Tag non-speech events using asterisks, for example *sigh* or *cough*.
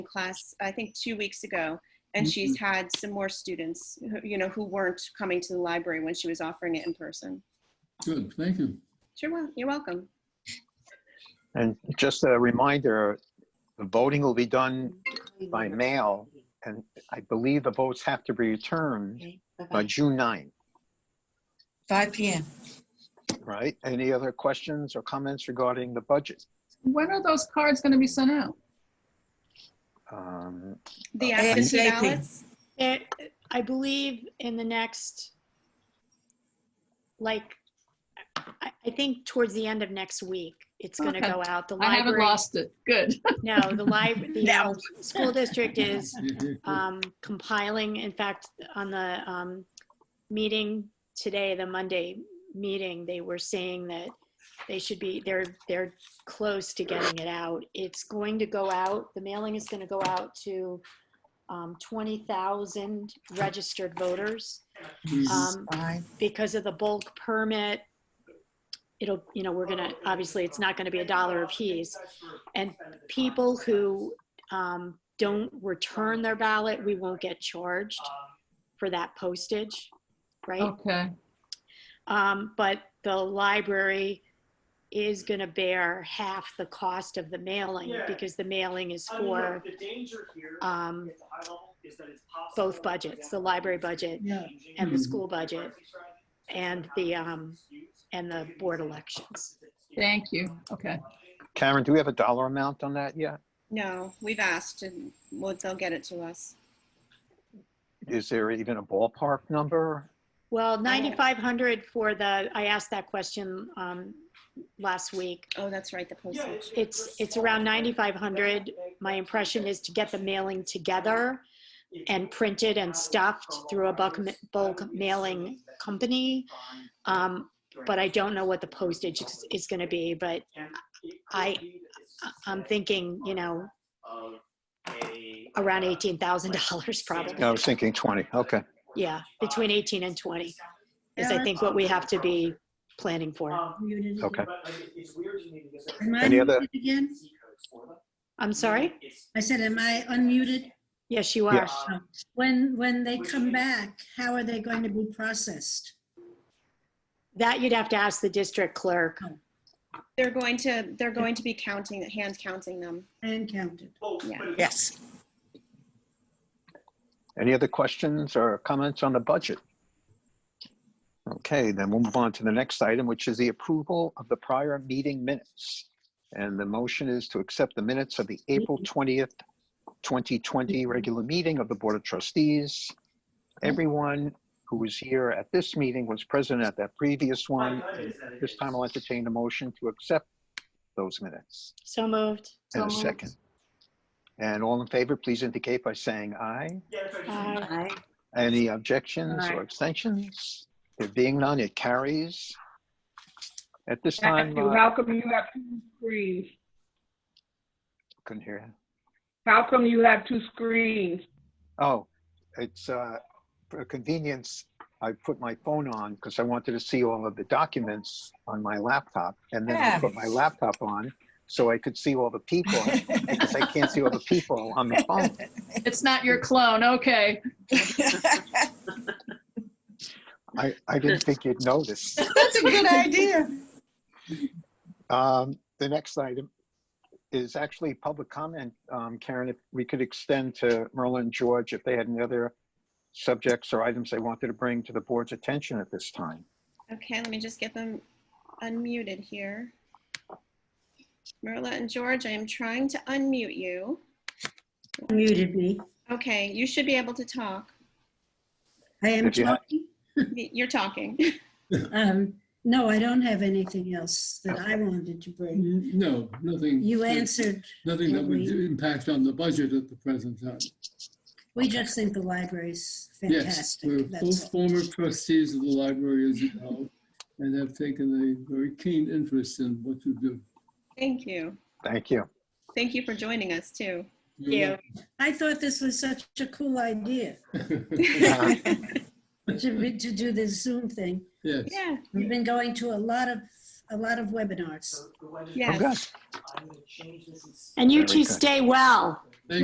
class, I think two weeks ago, and she's had some more students, who you know, who weren't coming to the library when she was offering it in person. Good, thank you. Sure, well, you're welcome. And just a reminder, the voting will be done by mail, and I believe the votes have to be returned by June 9, 5 PM. right? Any other questions or comments regarding the budget? When are those cards going to be sent out? Um, The Uh, absentee ASAP. ballots, There- I believe in the next, like, I, I think towards the end of next week, it's gonna Okay. go out. The I haven't library, lost it. Good. no, the *laughs* library, the No. um, school district is Yeah, yeah, yeah. um, compiling, in fact, on the um, meeting today, the Monday meeting, they were saying that they should be, they're, they're close to getting it out. It's going to go out, the mailing is going to go out to um, 20,000 registered voters. Mhm. Um, Five. Because of the bulk permit, it'll, you know, we're gonna, obviously, it's not gonna be a dollar apiece. And people who um, don't return their ballot, we won't get charged for that postage, right? *laughs* Okay. Um, But the library is gonna bear half the cost of the mailing Yeah. because the mailing is I mean, look, for The danger here at um, the high level is that it's possible. both budgets, the library budget Yeah. and the Mhm. school budget and the, um, and the board elections. Thank you. Okay. Karen, do we have a dollar amount on that yet? no, we've asked and well, they'll get it to us. Is there even a ballpark number? Well, 9,500 for the, I asked that question um, last week. Oh, that's right, the postage. It's, it's around 9,500. My impression is to get the mailing together and printed and stuffed through a bulk, ma- bulk mailing company. Um, But I don't know what the postage is- is going to be, but I- I- I'm thinking, you know, around $18,000 *laughs* probably. I was thinking 20, okay. Yeah, between 18 and 20 is I think what we have to be planning for. Okay. Am I Any other- unmuted again? I'm sorry? I said, am I unmuted? Yes, you Yeah. are. When, when they come back, how are they going to be processed? That you'd have to ask the district clerk. They're going to, they're going to be counting, hand counting them. And counted. Yes. Any other questions or comments on the budget? Okay, then we'll move on to the next item, which is the approval of the prior meeting minutes. And the motion is to accept the minutes of the April 20th, 2020 regular meeting of the Board of Trustees. Everyone who was here at this meeting was present at that previous one. This time I'll entertain a motion to accept those minutes So moved. in a second. And all in favor, please indicate by saying aye. Uh, Any objections Aye. or abstentions? There being none, it carries. At this time, Matthew, uh, how come you have two screens? couldn't hear. you. How come you have two screens? Oh, it's, uh, for convenience, I put my phone on because I wanted to see all of the documents on my laptop. And then I Yeah. put my laptop on so I could see all the people because I can't see all the people on the *laughs* phone. It's not your clone. Okay. That's I, I didn't think you'd notice. a *laughs* good idea. Um, The next item is actually public comment. Um, Karen, if we could extend to Merlin and George if they had any other subjects or items they wanted to bring to the board's attention at this time. Okay, let me just get them unmuted here. Marla and George, I am trying to unmute you. Muted me. Okay, you should be able to talk. I am If you ha- talking. You're talking. *laughs* Um, No, I don't have anything else that I wanted to bring. Mm, No, nothing. um, You answered, Nothing that would every- impact on the budget at the present time. we just think the library's Yes, we're fantastic. That's both all. former trustees of the library, as you know, and have taken a very keen interest in what you do. Thank you. Thank you. Thank you for joining us too. You're I thought this was such a cool idea *laughs* welcome. Yeah. to, be- to do this Zoom thing. *laughs* Yes. *laughs* Yeah, We've been going to a lot of, a lot of webinars. yes. Okay. And you Very two good. stay well.